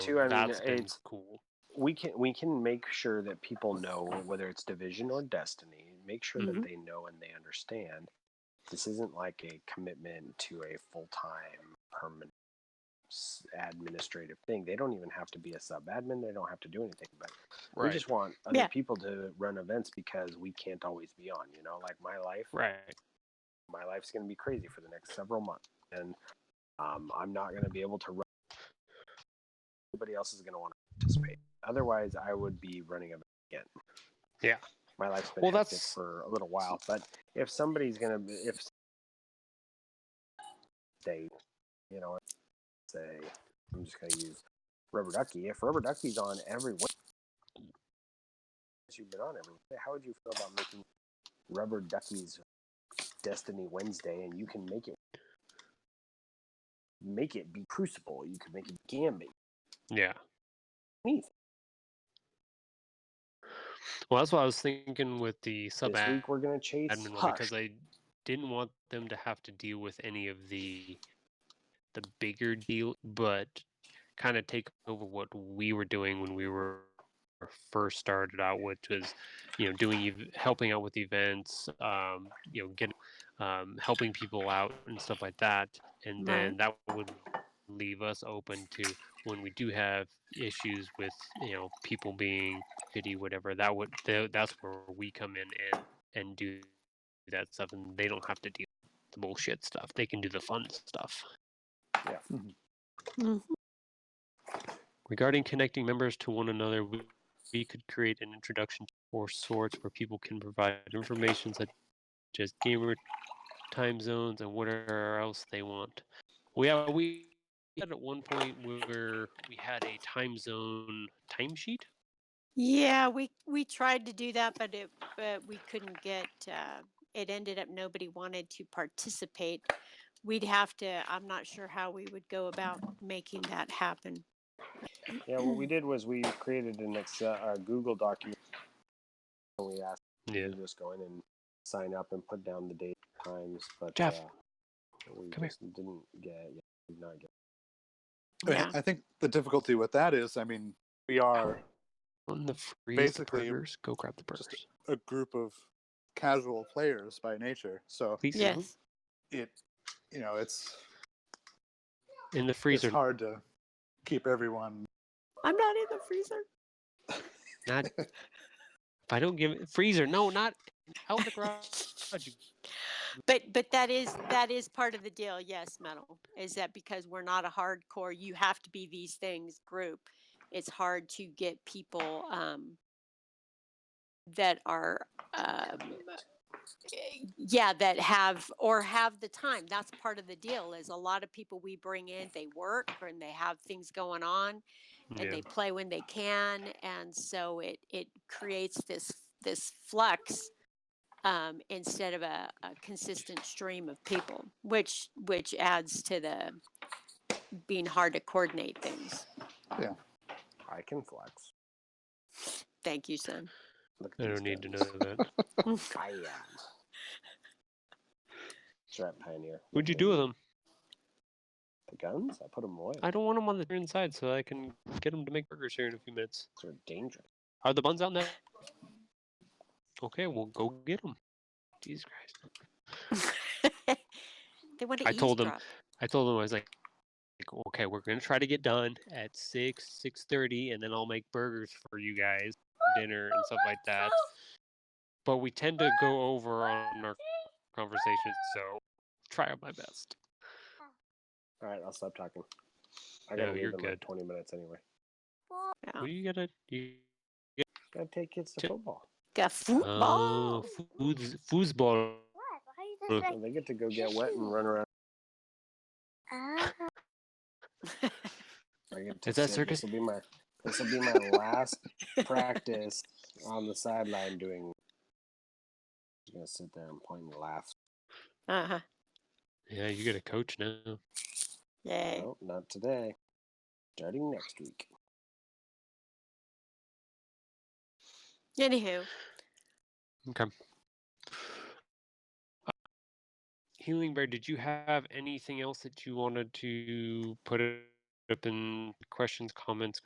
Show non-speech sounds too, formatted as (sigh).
too, I mean, that's been it's- cool. we can we can make sure that people know whether it's division or destiny make sure Mhm. that they know and they understand this isn't like a commitment to a full-time permanent s- administrative thing they don't even have to be a sub admin they don't have to do anything but Right. we just want other Yeah. people to run events because we can't always be on you know like my life right. my life's going to be crazy for the next several months and um, i'm not going to be able to run everybody else is going to want to participate otherwise i would be running a again Yeah. my life's been Well, well, that's- for a little while but if somebody's going to if they you know say i'm just going to use rubber ducky if rubber ducky's on every week you've been on every how would you feel about making rubber duckies Destiny Wednesday, and you can make it make it be Crucible. You can make it Gambit. Yeah. Anything. Well, that's what I was thinking with the sub This admin week we're gonna chase one Hush. because I didn't want them to have to deal with any of the the bigger deal, but kind of take over what we were doing when we were first started out, which was you know doing ev- helping out with events, um, you know, getting um, helping people out and stuff like that, and then that would leave us open to when we do have issues with you know people being pity whatever that would tha- that's where we come in and and do that stuff and they don't have to do the bullshit stuff they can do the fun stuff Mhm. regarding connecting members to one another we, we could create an introduction or sorts where people can provide information such as gamer time zones and whatever else they want we have we had at one point where we had a time zone timesheet Yeah, we we tried to do that, but it but we couldn't get. Uh, it ended up nobody wanted to participate. We'd have to. I'm not sure how we would go about making that happen. (laughs) Yeah, what we did was we created an Excel, a Google document, and we asked yeah you to just go in and sign up and put down the date times. But Jeff, uh, we come here. just didn't get. Yeah, did not get. I, mean, Yeah. I think the difficulty with that is, I mean, we are on the free Basically, burgers go grab the burgers just- a group of casual players by nature, so please sir. Yes. it, you know, it's in the freezer it's hard to keep everyone. I'm not in the freezer. Not if I don't give it freezer. No, not out in the garage. you- But but that is that is part of the deal. Yes, metal is that because we're not a hardcore. You have to be these things group. It's hard to get people um, that are um, y- yeah that have or have the time. That's part of the deal. Is a lot of people we bring in they work and they have things going on and Yeah. they play when they can and so it it creates this this flux um, instead of a, a consistent stream of people which which adds to the being hard to coordinate things I can flex. thank you son Look I these don't need to know guys. that. I am. Strat Pioneer. What'd you do with them? The guns? I put them away. I don't want them on the inside, so I can get them to make burgers here in a few minutes. They're dangerous. Are the buns out there? Okay, well go get them. Jesus Christ! they want to I told 'em- eavesdrop. I told them I was like, like, okay, we're gonna try to get done at six six thirty, and then I'll make burgers for you guys for dinner and stuff like that. But we tend to go over on our conversations, so try my best. All right, I'll stop talking. I No, gotta leave you're in like good. 20 minutes anyway. Yeah. Well, you gotta you Gotta take kids to Ti- football. Got football. Oh, foods, foosball. Uh, Look. And they get to go get wet and run around. I get to Is that sit. circus- This will be my, this will be my last practice on the sideline doing. I'm gonna sit there and point and laugh. uh-huh. Yeah, you got a coach now. Yay. No, not today. Starting next week. Anywho, Okay. Healing Bear, did you have anything else that you wanted to put open questions, comments,